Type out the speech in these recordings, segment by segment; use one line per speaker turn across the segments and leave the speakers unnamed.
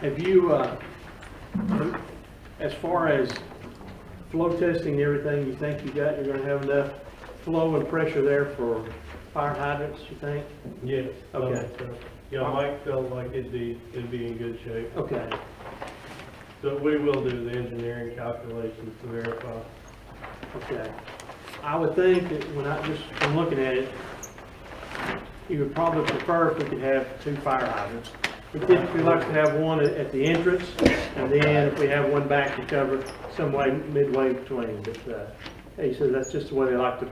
Have you, uh, as far as flow testing and everything, you think you got, you're gonna have enough flow and pressure there for fire hydrants, you think?
Yes. I
Okay.
think so. Um, Yeah, Mike felt like it'd be, it'd be in good shape.
Okay,
So we will do the engineering calculations to verify.
okay. I would think that when I, just from looking at it, you would probably prefer if we could have two fire hydrants. We typically like to have one at- at the entrance, and then if we have one back to cover some way midway between, but, uh, he says that's just the way they like to,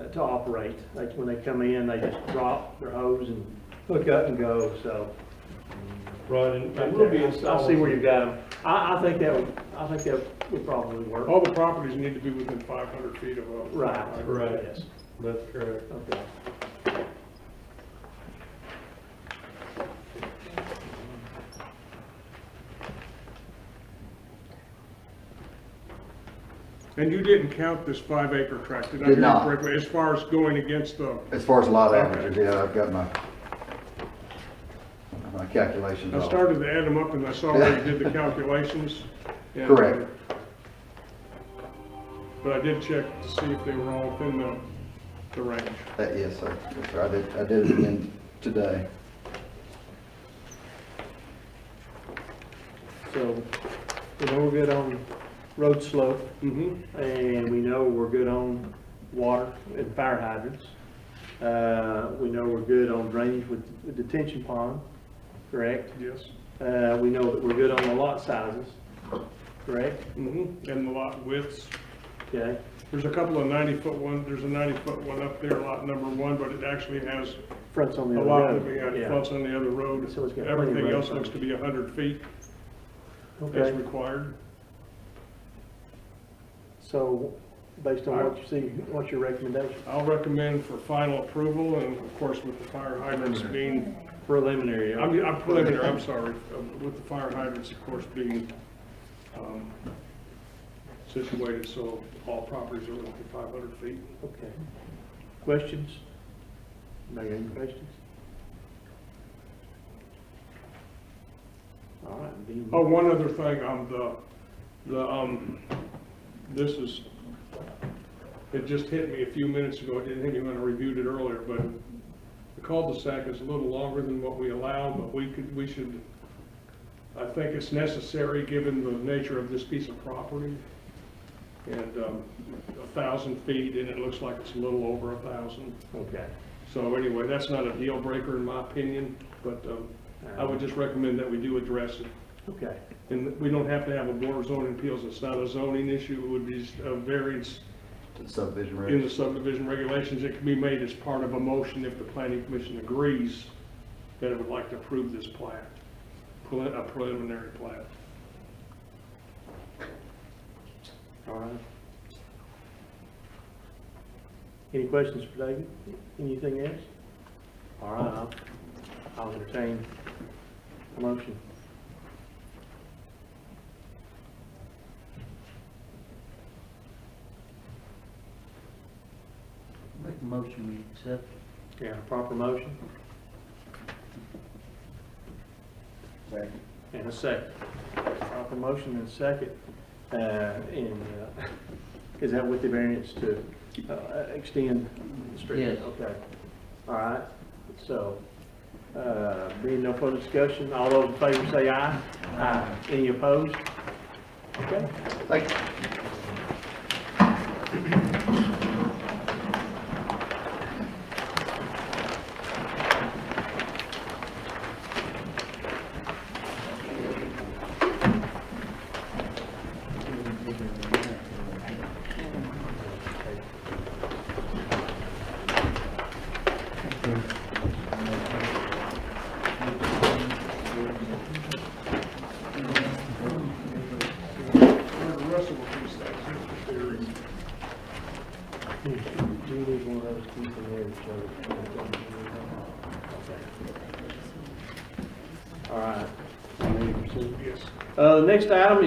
uh, to operate. Like, when they come in, they just drop their hose and hook up and go, so.
Right, and and we'll be installing. Oh.
I see where you've got them. I, I think that would, I think that would probably work.
All the properties need to be within five hundred feet of a.
Right.
Right.
Yes.
That's correct.
Okay.
And you didn't count this five acre tract, did I
Did
hear you
not.
correctly, as far as going against the,
As far as lot averages, yeah, I've got my, my calculations
I
all.
started to add them up and I saw where you did the calculations. and, uh,
Correct.
But I did check to see if they were all within the, the range.
That, Uh, yes, sir, yes, sir, I did, I did it again today.
So, we know we're good on road slope,
Mm-hmm.
and we know we're good on water and fire hydrants. Uh, we know we're good on drainage with with detention pond, correct?
Yes.
Uh, we know that we're good on the lot sizes, correct?
Mm-hmm. And the lot widths,
Okay,
there's a couple of ninety foot one, there's a ninety foot one up there, lot number one, but it actually has
fronts on
a
the other
lot
road.
that we had
Yeah.
fronts on the other road.
So it's got plenty of
Everything
road
else looks
frontage.
to be hundred feet as
Okay,
required.
so, based on what you see, what's your recommendation?
I'll recommend for final approval, and of course with the fire hydrants being,
Preliminary.
I'm, I'm preliminary, I'm sorry, uh, with the fire hydrants, of course, being, um, situated so all properties are within five hundred feet.
Okay. Questions? Anybody got any questions? All right, being-
Oh, one other thing, um, the, the, um, this is, it just hit me a few minutes ago, I didn't think anyone reviewed it earlier, but the cul-de-sac is a little longer than what we allow, but we could, we should, I think it's necessary, given the nature of this piece of property. And, um, a thousand feet, and it looks like it's a little over a thousand.
Okay.
So anyway, that's not a deal breaker in my opinion, but, um, I would just recommend that we do address it.
Okay,
And we don't have to have a board of zoning appeals, it's not a zoning issue, it would be s- a variance
Subdivision
in the
regs.
subdivision regulations, it can be made as part of a motion if the planning commission agrees that it would like to approve this plat, preli- a preliminary plat.
all right. Any questions for David? Anything else? All right, I'll- I'll entertain a motion.
Make a motion, we accept.
Yeah, proper motion and a second. Proper motion and a second. Uh, And uh, is that with the variance to uh, extend the street?
Yes.
Okay. All right, so uh, being no further discussion, all those in favor say aye. Aye. Any opposed? Okay.
Thank you.
Where the rest of the piece that's in theory.
Do you need one of those keys in there to show? All right.
Yes.
Uh, Next item